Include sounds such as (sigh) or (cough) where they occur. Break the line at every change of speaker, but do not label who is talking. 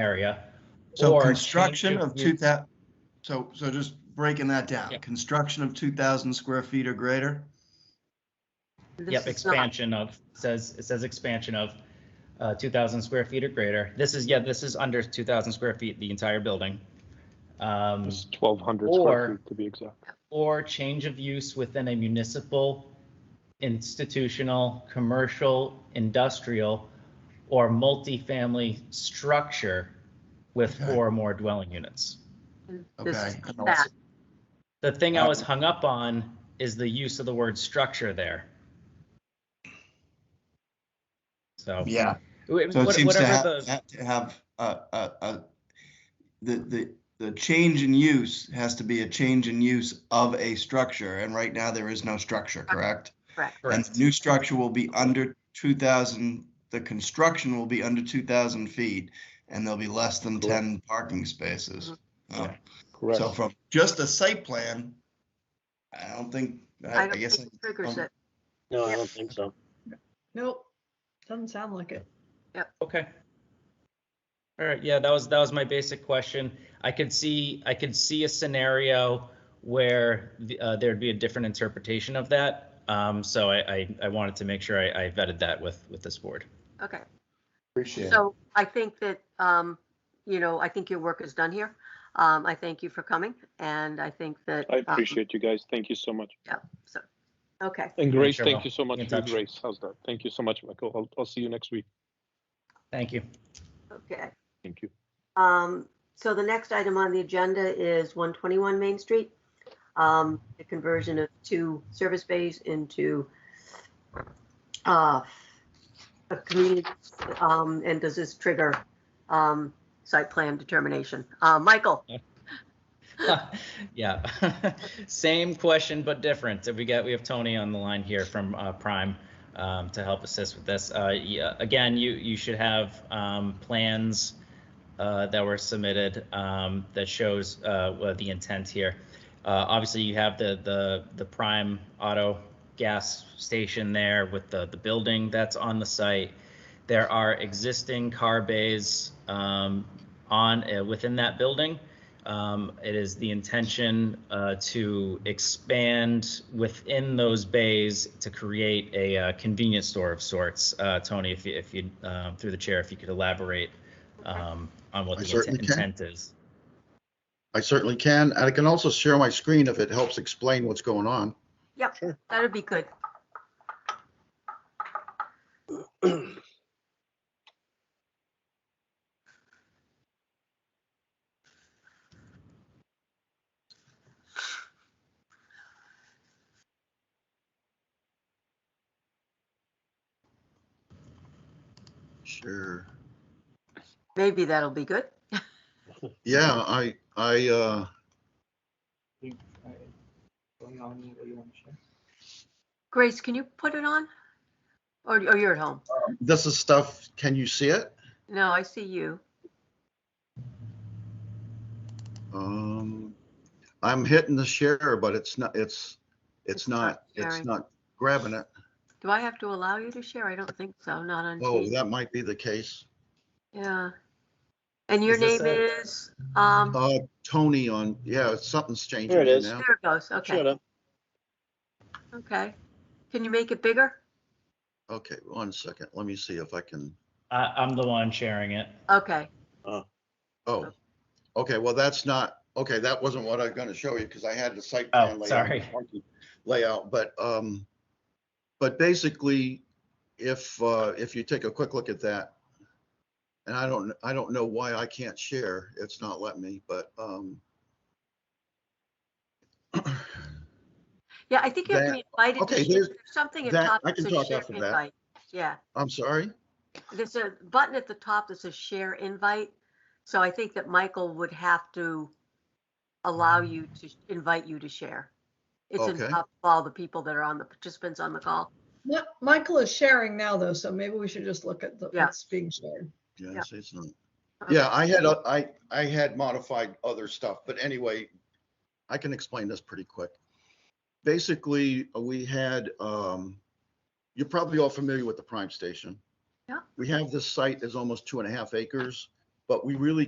area.
So
or change
construction of
use.
two thou, so, so just breaking that down,
Yeah.
construction of two thousand square feet or greater?
Yep, expansion of, says, it says expansion of uh, 2,000 square feet or greater. This is, yeah, this is under 2,000 square feet, the entire building. Um,
It's twelve hundred square
Or-
feet to be exact.
Or change of use within a municipal, institutional, commercial, industrial, or multifamily structure with
Okay.
four or more dwelling units.
Okay.
This
I
is
know
that.
The thing
Uh,
I was hung up on is the use of the word structure there. So.
Yeah.
wh-
So it
what-
seems to
whatever
have,
the-
ha- to have, uh, uh, uh, the, the, the change in use has to be a change in use of a structure, and right now there is no structure, correct?
Correct.
And
Correct.
the new structure will be under two thousand, the construction will be under two thousand feet, and there'll be less than
Correct.
ten parking spaces. Oh.
Okay.
Correct.
So from just a site plan, I don't think, I,
I
I
don't
guess,
think it triggers
um,
it.
No, I
Yeah.
don't think so.
Nope, doesn't sound like it.
Okay. All right, yeah, that was, that was my basic question. I could see, I could see a scenario where the- uh, there'd be a different interpretation of that. Um, So I, I, I wanted to make sure I I vetted that with, with this board.
Okay.
appreciate it.
So I think that, um, you know, I think your work is done here. Um, I thank you for coming and I think that.
I
um,
appreciate you guys. Thank you so much.
so- Okay,
And Grace,
sure
thank
will.
you so much
Be in
for your
touch.
Grace. How's that? Thank you so much, Michael. I'll, I'll see you next week.
Thank you.
okay.
Thank you.
Um, so the next item on the agenda is one twenty-one Main Street. Um, the conversion of two service bays into uh, a community, um, and does this trigger, um, site plan determination? Uh, Michael?
(laughs) Yeah, same question but different. We got, we have Tony on the line here from uh, Prime um, to help assist with this. Uh, yeah, Again, you, you should have um, plans uh, that were submitted um, that shows uh, what the intent here. Uh, Obviously, you have the, the, the Prime Auto Gas Station there with the, the building that's on the site. There are existing car bays um, on, uh, within that building. Um, It is the intention uh, to expand within those bays to create a uh, convenience store of sorts. Uh, Tony, if you, if you, uh, through the chair, if you could elaborate um, on what
I
the
certainly
inten-
can.
intent is.
I certainly can. And I can also share my screen if it helps explain what's going on.
That would be good.
Sure.
Maybe that'll be good.
Yeah, I, I, uh,
Grace, can you put it on? Or, or you're at home?
this is stuff, can you see it?
No, I see you.
Um, I'm hitting the share, but it's not, it's,
It's
it's
not
not, it's
sharing.
not grabbing it.
Do I have to allow you to share? I don't think so, not on
Oh,
TV.
that might be the case.
Yeah. And your
Is this
name
a-
is, um, there
Uh, Tony on, yeah, something's changing.
There it
here
is.
now.
it goes.
Shut
Okay,
up.
okay. Can you make it bigger?
Okay, one second. Let me see if I can,
I, I'm the one sharing it.
Okay,
oh, okay, well, that's not, okay, that wasn't what I was gonna show you because I had the site.
Oh,
plan layout.
sorry.
(laughs) layout, but, um, but basically, if, uh, if you take a quick look at that, and I don't, I don't know why I can't share, it's not letting me, but, um,
yeah, I think you have to be invited to
okay,
share.
here's-
There's something at
that-
top
I
that
can
says
talk
share
after that.
invite. Yeah,
I'm sorry,
there's a button at the top that says share invite. So I think that Michael would have to allow you to invite you to share. It's in
Okay.
top of all the people that are on the participants on the call.
Mi- Michael is sharing now though, so maybe we should just look at the-
Yeah.
what's being shared.
yeah,
Yeah. Uh-huh.
see, it's not.
Okay.
Yeah, I had, o- I, I had modified other stuff, but anyway, I can explain this pretty quick. Basically, uh, we had, um, you're probably all familiar with the Prime Station.
Yeah.
We have this site is almost two and a half acres. but we really